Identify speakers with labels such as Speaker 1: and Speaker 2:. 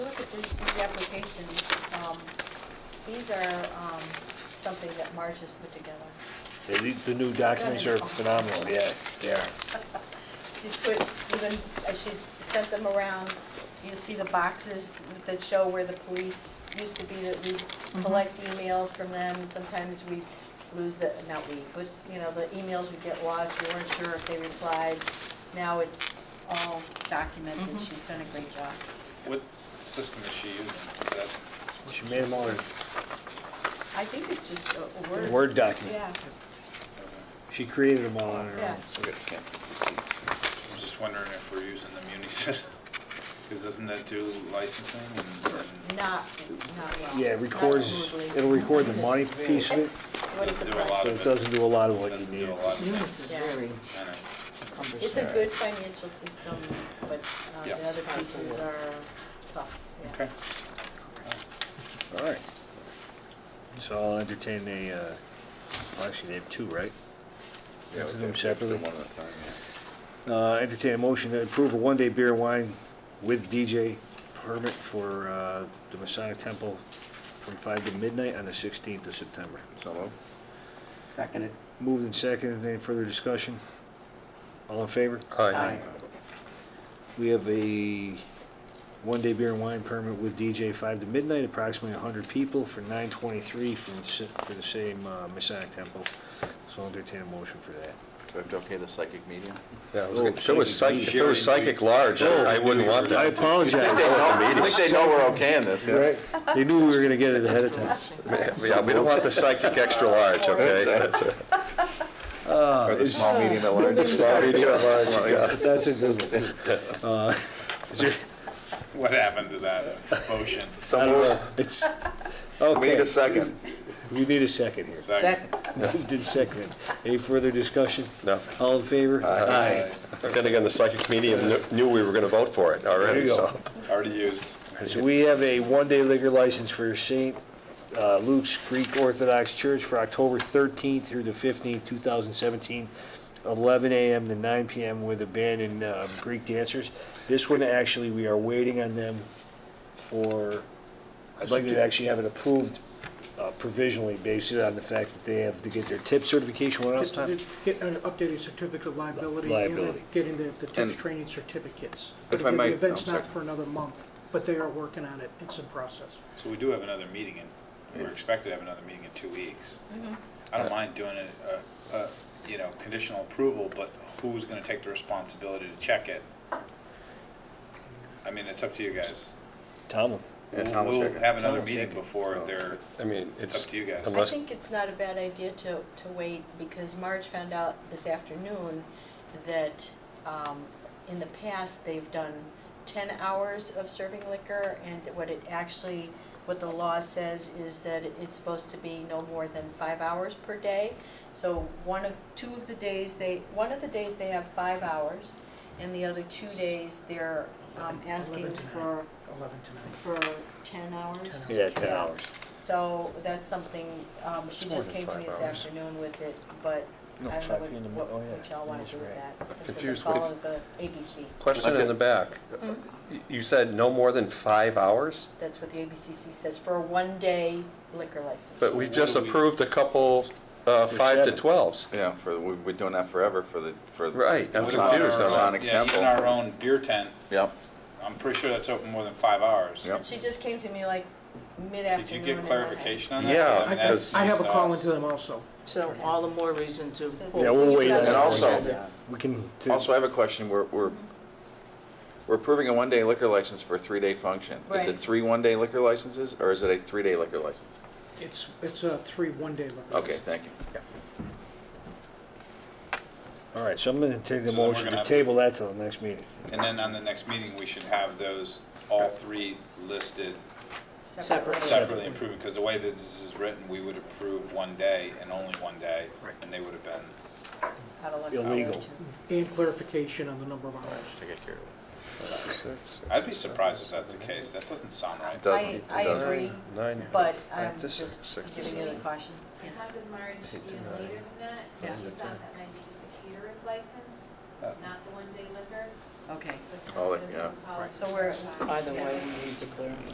Speaker 1: the applications, um, these are um, something that Marge has put together.
Speaker 2: Yeah, the- The new documents are phenomenal, yeah, they are.
Speaker 1: She's put, even, uh, she's sent them around, you see the boxes that show where the police used to be, that we collect emails from them, sometimes we lose the, not we, but, you know, the emails would get lost, we weren't sure if they replied, now it's all documented, she's done a great job.
Speaker 3: What system is she using? Is that-
Speaker 2: She made them all in
Speaker 1: I think it's just a- a word.
Speaker 2: Word document.
Speaker 1: Yeah,
Speaker 2: She created them all on her
Speaker 1: Yeah.
Speaker 2: own.
Speaker 3: I'm just wondering if we're using the Muni system, because doesn't that do licensing and- and
Speaker 1: not, not well.
Speaker 2: Yeah,
Speaker 1: not
Speaker 2: it records,
Speaker 1: smoothly.
Speaker 2: it'll record the money piece of it,
Speaker 1: What is
Speaker 3: doesn't
Speaker 1: it
Speaker 3: do a
Speaker 1: called?
Speaker 3: lot
Speaker 2: but
Speaker 3: of
Speaker 2: it
Speaker 3: it?
Speaker 2: doesn't do a lot of what you
Speaker 3: Doesn't
Speaker 2: need.
Speaker 3: do a lot of
Speaker 4: Munis
Speaker 3: things.
Speaker 4: is
Speaker 1: Yeah.
Speaker 4: very
Speaker 3: I know.
Speaker 4: cumbersome.
Speaker 1: It's a good financial system, but uh,
Speaker 3: Yeah.
Speaker 1: the other pieces are tough. yeah.
Speaker 3: Okay.
Speaker 2: All right. So I'll entertain a, uh, well, actually, they have two, right?
Speaker 5: Yeah,
Speaker 2: Both of them
Speaker 5: we did- did
Speaker 2: separately?
Speaker 5: One at a time, yeah.
Speaker 2: Uh, entertain a motion to approve a one-day beer and wine with DJ permit for, uh, the Masonic Temple from five to midnight on the sixteenth of September.
Speaker 5: So moved.
Speaker 6: Second it.
Speaker 2: Moved and seconded, any further discussion? All in favor?
Speaker 6: Aye.
Speaker 2: We have a one-day beer and wine permit with DJ five to midnight, approximately hundred people for nine twenty-three from, the si- for the same, uh, Masonic Temple. So I'll entertain a motion for that.
Speaker 5: Do I have to okay the psychic medium?
Speaker 7: Yeah, I was
Speaker 2: Oh,
Speaker 7: gonna- if it was
Speaker 2: psychic
Speaker 7: psychic, if it was psychic large, I I wouldn't want
Speaker 2: I
Speaker 7: that.
Speaker 2: apologize.
Speaker 5: I think they know we're okaying this.
Speaker 2: Right? They knew we were gonna get it ahead of time.
Speaker 7: Yeah, we don't want the psychic extra large, okay? That's it.
Speaker 5: Or the small, medium, at large.
Speaker 7: Small, medium, and large, you got it.
Speaker 2: That's a good one, too. Uh, is there-
Speaker 3: What happened to that
Speaker 2: I
Speaker 3: motion?
Speaker 2: don't
Speaker 7: Someone,
Speaker 2: know. It's,
Speaker 7: we need
Speaker 2: okay,
Speaker 7: a second.
Speaker 2: we need a second here.
Speaker 3: Second.
Speaker 2: Moved and seconded. Any further discussion?
Speaker 7: No.
Speaker 2: All in favor? Aye.
Speaker 7: Then again, the psychic medium kn- knew we were gonna vote for it
Speaker 2: There
Speaker 7: already,
Speaker 2: you go.
Speaker 7: so.
Speaker 3: Already used.
Speaker 2: So we have a one-day liquor license for St. uh, Luke's Greek Orthodox Church for October 13th through the 15th, 2017, 11 a.m. to 9 p.m. with a band and um, Greek dancers. This one, actually, we are waiting on them for, I'd like to actually have it approved uh, provisionally, based on the fact that they have to get their tip certification. What else,
Speaker 8: Just
Speaker 2: Tom?
Speaker 8: to Get an updated certificate of liability. and then
Speaker 2: Liability.
Speaker 8: Getting the, the
Speaker 5: And-
Speaker 8: TIPS training certificates.
Speaker 5: If I
Speaker 8: But
Speaker 5: might-
Speaker 8: The event's
Speaker 5: I'm
Speaker 8: not
Speaker 5: sorry.
Speaker 8: for another month, but they are working on it. It's in process.
Speaker 3: So we do have another meeting in, we're expected to have another meeting in two weeks.
Speaker 8: Mm-hmm.
Speaker 3: I don't mind doing it, uh, uh, you know, conditional approval, but who's gonna take the responsibility to check it? I mean, it's up to you guys.
Speaker 2: Tom?
Speaker 5: Yeah, Tom will
Speaker 3: We'll
Speaker 5: check it.
Speaker 3: have another
Speaker 2: Tom will check
Speaker 3: meeting
Speaker 2: it.
Speaker 3: before
Speaker 5: Oh.
Speaker 3: they're,
Speaker 7: I mean,
Speaker 3: it's
Speaker 7: it's.
Speaker 3: up to you guys.
Speaker 1: I
Speaker 7: Unless,
Speaker 1: think it's not a bad idea to, to wait, because Marge found out this afternoon that um, in the past, they've done 10 hours of serving liquor, and what it actually, what the law says is that it's supposed to be no more than five hours per day. So one of, two of the days, they, one of the days they have five hours, and the other two days, they're um,
Speaker 8: Eleven-
Speaker 1: asking
Speaker 8: eleven to
Speaker 1: for,
Speaker 8: nine. Eleven to nine.
Speaker 1: for 10 hours.
Speaker 8: Ten hours.
Speaker 2: Yeah, 10 hours.
Speaker 1: So that's something, um, she
Speaker 7: It's more
Speaker 1: just
Speaker 7: than
Speaker 1: came to me
Speaker 7: five
Speaker 1: this
Speaker 7: hours.
Speaker 1: afternoon with it, but I
Speaker 2: No,
Speaker 1: don't know
Speaker 2: five
Speaker 1: what-
Speaker 2: in the mo-
Speaker 1: what,
Speaker 2: oh, yeah.
Speaker 1: what y'all wanna do with
Speaker 2: Right.
Speaker 1: that. If it's a
Speaker 7: confused with-
Speaker 1: follow the ABC,
Speaker 7: question in the back. Y- You said no more than five hours?
Speaker 1: that's what the ABCC says, for a one-day liquor license.
Speaker 7: But we
Speaker 3: What
Speaker 7: just
Speaker 3: do we-
Speaker 7: approved a couple, uh,
Speaker 2: For
Speaker 7: five to
Speaker 2: seven.
Speaker 7: twelves.
Speaker 5: Yeah, for, we've been doing that forever for the, for. the-
Speaker 7: Right, I'm
Speaker 3: What about
Speaker 7: confused
Speaker 3: our-
Speaker 7: on
Speaker 5: Masonic
Speaker 7: that.
Speaker 3: Yeah, even
Speaker 5: Temple.
Speaker 3: our own beer tent,
Speaker 5: Yep,
Speaker 3: I'm pretty sure that's open more than five hours.
Speaker 5: Yep.
Speaker 1: She just came to me like
Speaker 3: Did
Speaker 1: mid-afternoon.
Speaker 3: you get
Speaker 1: and I-
Speaker 3: clarification on that?
Speaker 7: Yeah,
Speaker 3: I mean,
Speaker 8: I,
Speaker 3: that's
Speaker 8: I have a
Speaker 3: news to
Speaker 8: call
Speaker 3: us.
Speaker 8: into them also.
Speaker 4: So all the more reason to.
Speaker 1: Yeah,
Speaker 2: we'll
Speaker 4: pull
Speaker 2: wait
Speaker 4: this
Speaker 2: on
Speaker 4: together.
Speaker 5: that. And also-
Speaker 2: We can,
Speaker 5: also I have a question, we're, we're, we're approving a one-day liquor license for a three-day function. Is
Speaker 1: Right.
Speaker 5: it three one-day liquor licenses, or is it a three-day liquor license?
Speaker 8: It's, it's a three one-day liquor.
Speaker 5: Okay, thank you.
Speaker 2: all right, so I'm going to take
Speaker 3: So
Speaker 2: the
Speaker 3: then we're
Speaker 2: motion
Speaker 3: gonna
Speaker 2: to
Speaker 3: have-
Speaker 2: table that till the next meeting.
Speaker 3: And then on the next meeting, we should have those, all three listed
Speaker 1: Separate.
Speaker 4: Separate.
Speaker 3: separately and proven, because the way that this is written, we would approve one day and only one day, and they would have been
Speaker 1: Out of one hour
Speaker 2: Illegal.
Speaker 1: to-
Speaker 8: And clarification on the number of hours.
Speaker 5: Take it care of it.
Speaker 3: I'd be surprised if that's the case. That doesn't sound right.
Speaker 5: It doesn't-
Speaker 1: I
Speaker 5: it doesn't.
Speaker 1: agree,
Speaker 7: Nine.
Speaker 1: but
Speaker 7: five
Speaker 1: I'm
Speaker 7: to six,
Speaker 1: just
Speaker 7: six to
Speaker 1: giving you the caution.
Speaker 9: I talked with Marge even later than that, and she thought that might be just the caterer's license, not the one-day liquor,
Speaker 1: Okay,
Speaker 9: so.
Speaker 5: Oh,
Speaker 9: it doesn't
Speaker 5: yeah.
Speaker 9: call it
Speaker 1: so we're.
Speaker 4: Either way, we need to clear.